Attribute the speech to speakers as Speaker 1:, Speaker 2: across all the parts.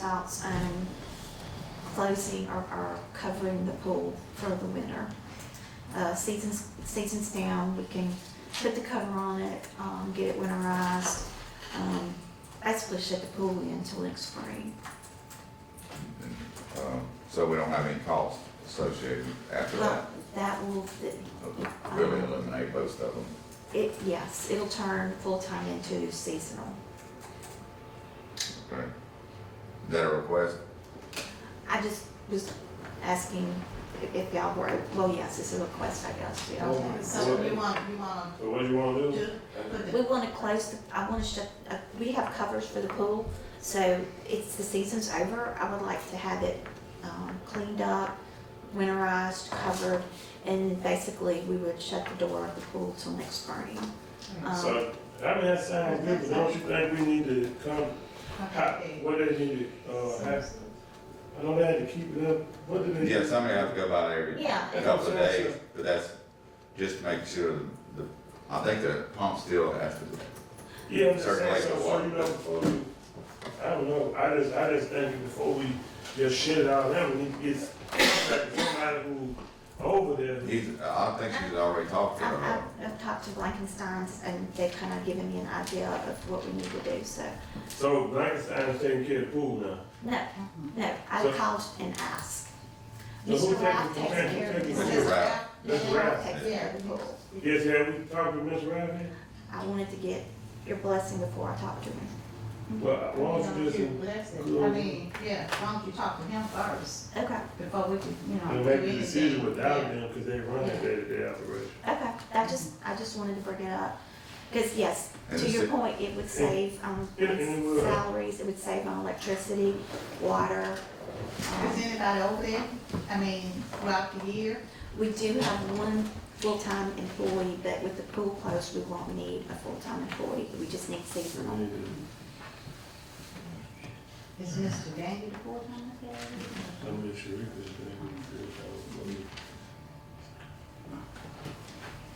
Speaker 1: stops um, closing or, or covering the pool for the winter. Uh, seasons, seasons down, we can put the cover on it, um, get it winterized. Um, basically shut the pool in until next spring.
Speaker 2: Um, So we don't have any cost associated after
Speaker 1: But
Speaker 2: that.
Speaker 1: that will, it- um,
Speaker 2: It'll Really eliminate most of them.
Speaker 1: it, yes, it'll turn full-time into seasonal.
Speaker 2: Okay. Is that a request?
Speaker 1: I just was asking if- if y'all were, well, yes, it's a request, I guess, to y'all.
Speaker 3: Oh,
Speaker 4: So we want, we want
Speaker 3: So what do you wanna
Speaker 4: to
Speaker 3: do?
Speaker 4: do, put
Speaker 1: We
Speaker 4: the,
Speaker 1: want to close, the. I want to shut, uh, we have covers for the pool, so it's, the season's over. I would like to have it um, cleaned up, winterized, covered, and basically, we would shut the door of the pool till next spring. Um,
Speaker 3: Mm-hmm. So, I mean, that sounds good, but don't you think we need to come, how,
Speaker 4: okay.
Speaker 3: what they need to, uh, have, I know they had to keep it up, what do they?
Speaker 2: Yeah, somebody have to go by every
Speaker 1: Yeah,
Speaker 2: couple of days, but that's just to make sure the, I think the pump still has to,
Speaker 3: Yeah, I'm just saying,
Speaker 2: Circulate the
Speaker 3: so, so
Speaker 2: water.
Speaker 3: you know, before we, I don't know, I just, I just think before we just shit it out, there, we need to get somebody who over there. who-
Speaker 2: he's, I think she's already talked to
Speaker 1: I-
Speaker 2: her.
Speaker 1: I've I've talked to Blankensteins, and they've kind of given me an idea of what we need to do, so,
Speaker 3: So Blankenstein's taking care of the pool now.
Speaker 1: no, no, I
Speaker 3: So-
Speaker 1: called and asked.
Speaker 3: So who
Speaker 1: Mr.
Speaker 3: take-
Speaker 1: Ralph
Speaker 3: who
Speaker 1: takes
Speaker 3: take-
Speaker 1: care of
Speaker 3: who
Speaker 1: this.
Speaker 2: take- Mr. Ralph.
Speaker 1: Mr. Ralph takes care
Speaker 4: Yeah,
Speaker 1: of the pool.
Speaker 4: we-
Speaker 3: Yes, have we talked to Ms. Riley?
Speaker 1: I wanted to get your blessing before I talk to him.
Speaker 3: Well, why
Speaker 4: you
Speaker 3: don't
Speaker 4: know,
Speaker 3: you just,
Speaker 4: you
Speaker 3: and
Speaker 4: bless it. I mean, yeah, why don't you talk to him first
Speaker 1: Okay,
Speaker 4: before we can, you
Speaker 3: make
Speaker 4: know. do
Speaker 3: the
Speaker 4: anything.
Speaker 3: decision without
Speaker 4: Yeah.
Speaker 3: them, cause they run it day to day operation.
Speaker 1: okay, that just, I just wanted to bring it up, because yes,
Speaker 2: And
Speaker 1: to
Speaker 2: it's
Speaker 1: your
Speaker 2: a-
Speaker 1: point, it would save, um,
Speaker 3: and it would.
Speaker 1: salaries, it would save on electricity, water. um,
Speaker 4: Is anybody over there, I mean, throughout the year?
Speaker 1: We do have one full-time employee, but with the pool closed, we won't need a full-time employee, we just need seasonal.
Speaker 4: Is Mr. Daniel the full-time there?
Speaker 3: I'm not sure if it's gonna be good, I don't know.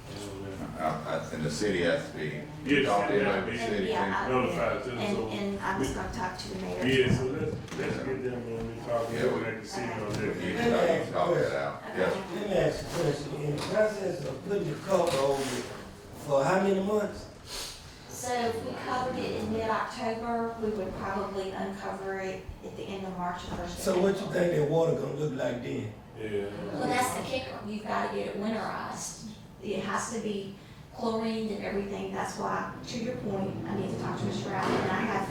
Speaker 3: I don't know.
Speaker 2: I- I- Uh, And the city has to be
Speaker 3: Yes,
Speaker 2: talked in
Speaker 3: yeah.
Speaker 2: by the city.
Speaker 1: Yeah, I-
Speaker 3: Notified too,
Speaker 1: And,
Speaker 3: so-
Speaker 1: and I was gonna talk to the mayor.
Speaker 3: Yeah, so let's, let's get them when we talk,
Speaker 2: Yeah, we-
Speaker 3: we'll make a decision on
Speaker 2: You
Speaker 3: that.
Speaker 2: can talk- you can talk that out, yes.
Speaker 5: Let me ask you a question. In the process of putting the cover over it, for how many months?
Speaker 1: So if we covered it in mid-October, we would probably uncover it at the end of March or first. of
Speaker 5: So what you
Speaker 1: April.
Speaker 5: think that water gonna look like then?
Speaker 3: Yeah.
Speaker 1: Well, that's the kicker, you've gotta get it winterized, it has to be chlorined and everything, that's why, to your point, I need to talk to Mr. Allen, and I have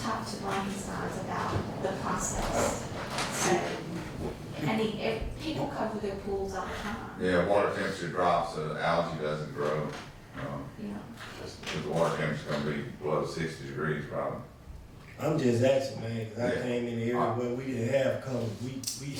Speaker 1: talked to Blankensteins about the process. So, I mean, if, people cover their pools all the time,
Speaker 2: Yeah, water temperature drops, so the algae doesn't grow. Um,
Speaker 1: you know,
Speaker 2: Because the water temperature's gonna be below sixty degrees probably.
Speaker 5: I'm just asking, man, 'cause I
Speaker 2: Yeah.
Speaker 5: came in the area where we didn't have cover. We, we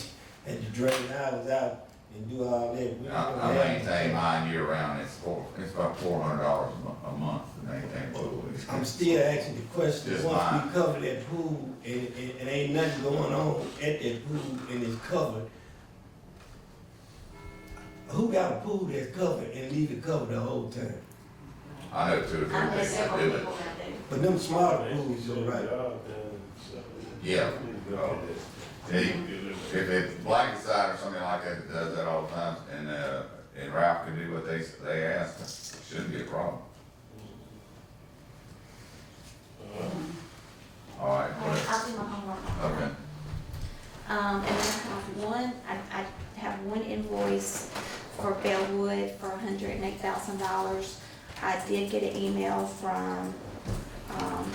Speaker 5: had to drain ours out and do all that. We
Speaker 2: I,
Speaker 5: didn't
Speaker 2: I
Speaker 5: have-
Speaker 2: maintain mine year round, it's four, it's about four hundred dollars a mo- a month to maintain pool.
Speaker 5: I'm still asking the question,
Speaker 2: Just
Speaker 5: once
Speaker 2: mine.
Speaker 5: we cover that pool and, and, and ain't nothing going on at that pool and it's covered, who got a pool that's covered and leave it covered the whole time?
Speaker 2: I know two or three
Speaker 1: I know
Speaker 2: things that
Speaker 1: several
Speaker 2: do it.
Speaker 1: people that do.
Speaker 5: But them smaller pools, you're right.
Speaker 2: Yeah. If it's Blackaside or something like that that does that all the time, and, uh, and Ralph can do what they, s- they ask, it shouldn't be a problem.
Speaker 3: Uh,
Speaker 2: All right,
Speaker 1: All right,
Speaker 2: well,
Speaker 1: I'll do my homework.
Speaker 2: okay.
Speaker 1: Um, and then I have one, I, I have one invoice for Bellwood for hundred and eight thousand dollars. I did get an email from, um,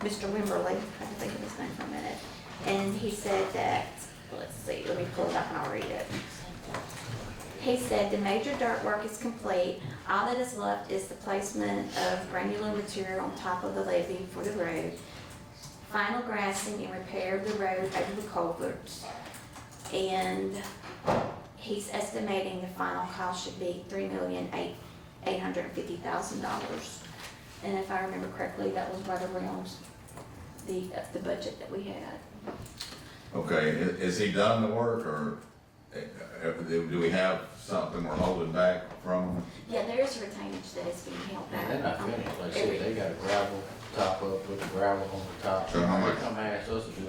Speaker 1: Mr. Wimberly, I can think of his name for a minute. And he said that, let's see, let me pull it up and I'll read it. He said the major dirt work is complete. All that is left is the placement of granular material on top of the levee for the road final grassing and repair of the road over the culverts. And he's estimating the final cost should be three million eight, eight hundred and fifty thousand dollars. And if I remember correctly, that was right around the, the budget that we had.
Speaker 2: Okay, i- is he done the work, or uh, uh, do we have something we're holding back from him?
Speaker 1: Yeah, there is a retainage that is being held back.
Speaker 6: Man, they're not finished, like I said, they got a gravel top up, put the gravel on the top.
Speaker 2: So how much-
Speaker 6: They come ask us to do